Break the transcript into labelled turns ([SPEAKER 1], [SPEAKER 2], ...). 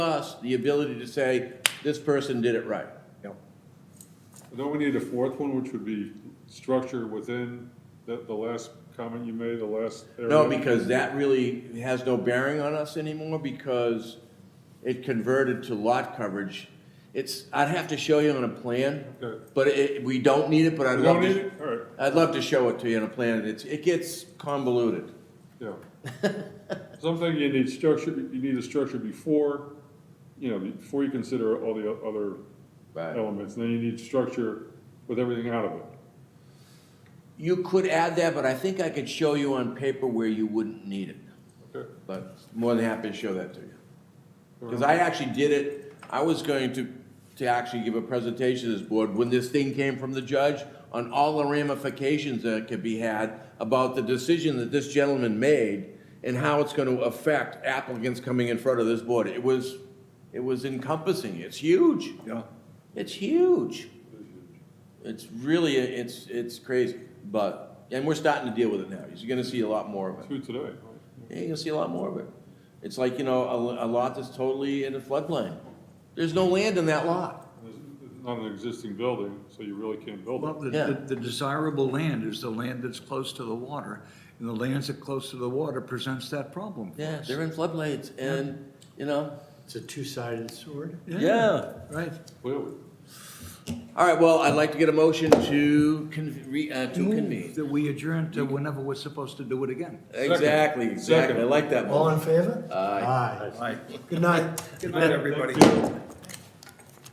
[SPEAKER 1] us the ability to say, this person did it right.
[SPEAKER 2] Then we need a fourth one, which would be structure within, that, the last comment you made, the last area.
[SPEAKER 1] No, because that really has no bearing on us anymore because it converted to lot coverage. It's, I'd have to show you on a plan,
[SPEAKER 2] Okay.
[SPEAKER 1] but it, we don't need it, but I'd
[SPEAKER 2] We
[SPEAKER 1] love
[SPEAKER 2] don't need
[SPEAKER 1] to,
[SPEAKER 2] it, all right,
[SPEAKER 1] I'd love to show it to you on a plan. and It's, it gets convoluted.
[SPEAKER 2] yeah. Something you need structure, you need a structure before, you know, before you consider all the o- other
[SPEAKER 1] Right.
[SPEAKER 2] elements, and then you need structure with everything out of it.
[SPEAKER 1] You could add that, but I think I could show you on paper where you wouldn't need it.
[SPEAKER 2] Okay.
[SPEAKER 1] But more than happy to show that to you. Because I actually did it, I was going to, to actually give a presentation to this board when this thing came from the judge on all the ramifications that could be had about the decision that this gentleman made and how it's going to affect applicants coming in front of this board. It was, it was encompassing. It's huge.
[SPEAKER 2] Yeah.
[SPEAKER 1] It's huge. It's really, it's, it's crazy, but, and we're starting to deal with it now. You're going to see a lot more of it.
[SPEAKER 2] Two today.
[SPEAKER 1] Yeah, you're gonna see a lot more of it. It's like, you know, a, a lot that's totally in a floodplain. There's no land in that lot.
[SPEAKER 2] There's there's not an existing building, so you really can't build
[SPEAKER 3] Well,
[SPEAKER 2] it.
[SPEAKER 3] the-
[SPEAKER 1] Yeah.
[SPEAKER 3] the, the desirable land is the land that's close to the water, and the lands that close to the water presents that problem. for
[SPEAKER 1] Yeah,
[SPEAKER 3] us.
[SPEAKER 1] they're in floodplains and, you know,
[SPEAKER 4] It's a two-sided sword.
[SPEAKER 1] yeah.
[SPEAKER 3] Right.
[SPEAKER 2] Clearly.
[SPEAKER 1] All right, well, I'd like to get a motion to con, re, uh, to
[SPEAKER 3] Move
[SPEAKER 1] convene.
[SPEAKER 3] That we adjourn to whenever we're supposed to do it again.
[SPEAKER 1] Exactly, exactly. I
[SPEAKER 2] Second.
[SPEAKER 1] like that
[SPEAKER 4] All
[SPEAKER 1] motion.
[SPEAKER 4] in favor? Aye. Good night.
[SPEAKER 3] Good night, everybody.